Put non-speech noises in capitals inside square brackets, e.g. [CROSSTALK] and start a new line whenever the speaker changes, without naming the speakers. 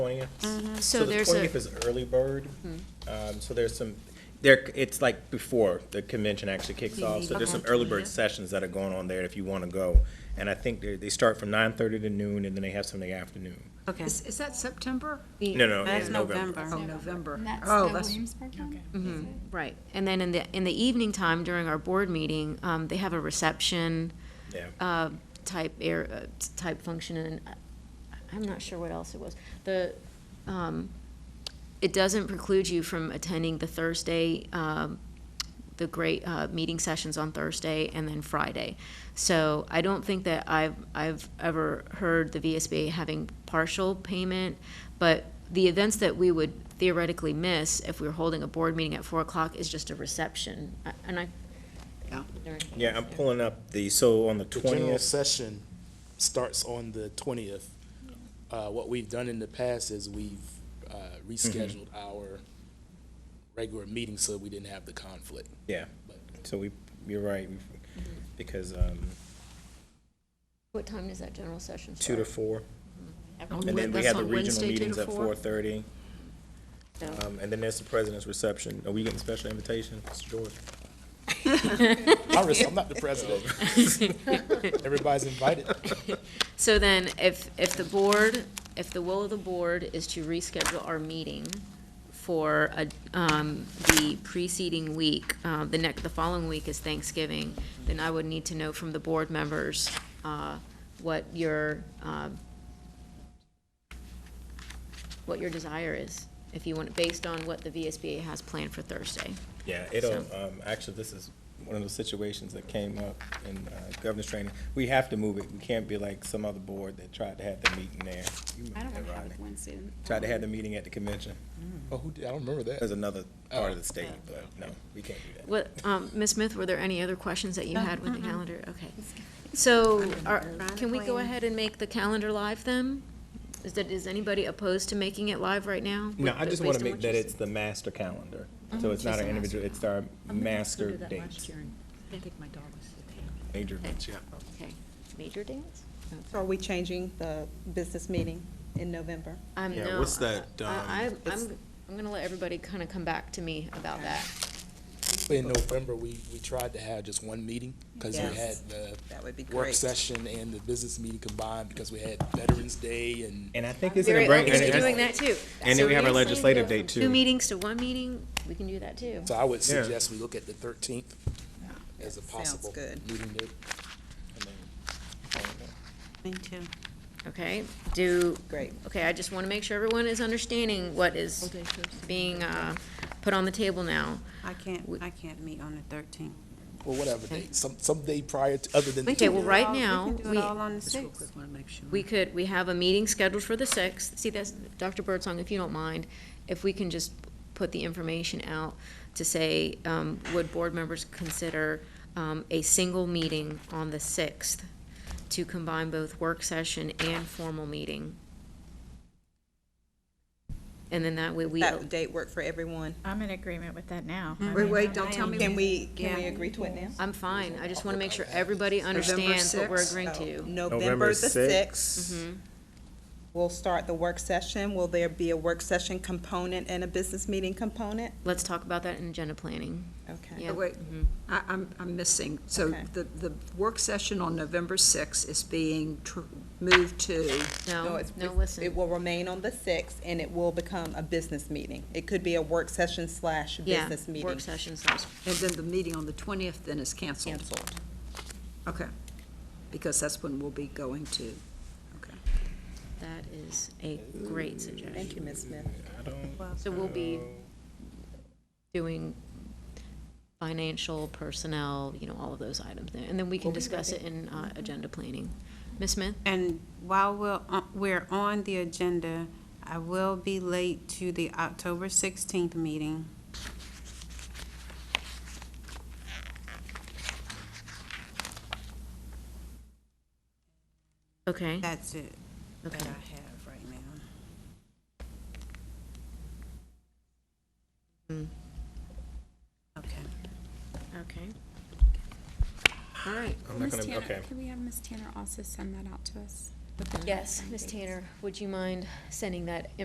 20th.
So
the
there's a-
20th is early bird. Um, So there's some, there, it's like before the convention actually kicks off. So there's some early bird sessions that are going on there if you want to go. And I think they, they start from 9:30 to noon and then they have some in the afternoon.
Okay.
Is, is that September?
No, no,
That's
in November.
Oh, November.
And that's
Oh,
the
that's-
Williamsburg one? Is it?
Right, and then in the, in the evening time during our board meeting, um, they have a reception,
Yeah.
uh, type air, uh, type function, and I- I'm not sure what else it was. The, um, it doesn't preclude you from attending the Thursday, um, the great, uh, meeting sessions on Thursday and then Friday. So I don't think that I've, I've ever heard the VSBA having partial payment, but the events that we would theoretically miss if we were holding a board meeting at four o'clock is just a reception, I- and I.
Yeah.
Yeah, I'm pulling up the, so on the
The general
20th,
session starts on the twentieth. Uh, what we've done in the past is we've, uh, rescheduled our regular meeting so we didn't have the conflict.
yeah.
But
So we, you're right, because um,
What time does that general session
two
start?
to four.
Everyone-
And then we
That's
have the
on
regional
Wednesday, two to
meetings at
four?
4:30.
So-
Um, And then there's the president's reception. Are we getting special invitation, Mr. George?
I res- I'm not the president. Everybody's invited.
So then, if, if the board, if the will of the board is to reschedule our meeting for a- um, the preceding week, uh, the next, the following week is Thanksgiving, then I would need to know from the board members uh, what your, um, what your desire is, if you want, based on what the VSBA has planned for Thursday.
Yeah, it'll, um, actually, this is one of those situations that came up in, uh, governor's training. We have to move it. We can't be like some other board that tried to have the meeting there. You
I don't
remember
want to
that,
have
Rodney.
it Wednesday.
Tried to have the meeting at the convention.
Oh, who did, I don't remember
There's
that.
another part of the state, but no, we can't do that.
What, um, Ms. Smith, were there any other questions that you had with the calendar? Okay. So, are, can we go ahead and make the calendar live then? Is that, is anybody opposed to making it live right now?
[LAUGHS] No, I
With-
just
based
want
on
to make
what you
that
said?
it's the master calendar. So it's not our individual, it's our master dates.
I think my dog was
Major events, yeah.
Okay. Major dates?
So are we changing the business meeting in November?
I'm,
Yeah,
no,
what's
I-
that,
I-
um,
I, I'm, I'm gonna let everybody kind of come back to me about that.
In November, we, we tried to have just one meeting because we had
Yes.
the
That would be
work
great.
session and the business meeting combined because we had Veterans Day and
And I think it's gonna
Very
bring.
open
and
to
it's-
doing that too.
and
So
then we have our
if you're saying
legislative
go from
date, too.
Two meetings to one meeting, we can do that too.
So I would
Yeah.
suggest we look at the thirteenth as a
Sounds
possible
good.
meeting date. I mean,
Me too. Okay, do.
Great.
Okay, I just want to make sure everyone is understanding what is being, uh, put on the table now.
I can't,
We-
I can't meet on the thirteenth.
Well, whatever date, some, some day prior to, other than.
Okay, well, right
We
now,
can do
we,
it all on the
Just real
sixth.
quick, want to make sure.
we could, we have a meeting scheduled for the sixth. See, that's, Dr. Birdsong, if you don't mind, if we can just put the information out to say, um, would board members consider, um, a single meeting on the sixth to combine both work session and formal meeting? And then that way we.
That date work for everyone?
I'm in agreement with that now.
Mm-hmm.
I
Wait,
mean,
wait, don't tell me.
Can we, can we
Yeah.
agree to it now?
I'm fine, I just want to make sure everybody understands what we're
6th?
agreeing
So,
to. Mm-hmm.
November the
sixth.
sixth. We'll start the work session. Will there be a work session component and a business meeting component?
Let's talk about that in agenda planning.
Okay.
Yeah. Mm-hmm.
Oh, Wait, I, I'm, I'm missing. So
Okay.
the, the work session on November sixth is being tr- moved to,
No,
it's-
no,
it- It
listen,
will remain on the sixth and it will become a business meeting. It could be a work session slash
yeah,
business meeting.
work session slash,
and then the meeting on the twentieth then is canceled.
Canceled.
Okay. Because that's when we'll be going to, okay.
that is a great suggestion.
Thank you, Ms. Smith.
I don't-
So we'll be doing financial, personnel, you know, all of those items, there, and then we can discuss it in,
Mm-hmm.
uh, agenda planning. Ms. Smith?
And while we're, on- we're on the agenda, I will be late to the October sixteenth meeting.
Okay,
That's it that I
okay.
have right now. Okay.
Okay. All right.
I'm not
Miss
gonna,
Tanner,
okay.
Can we have Miss Tanner also send that out to us?
Yes, Ms. Tanner, would you mind sending that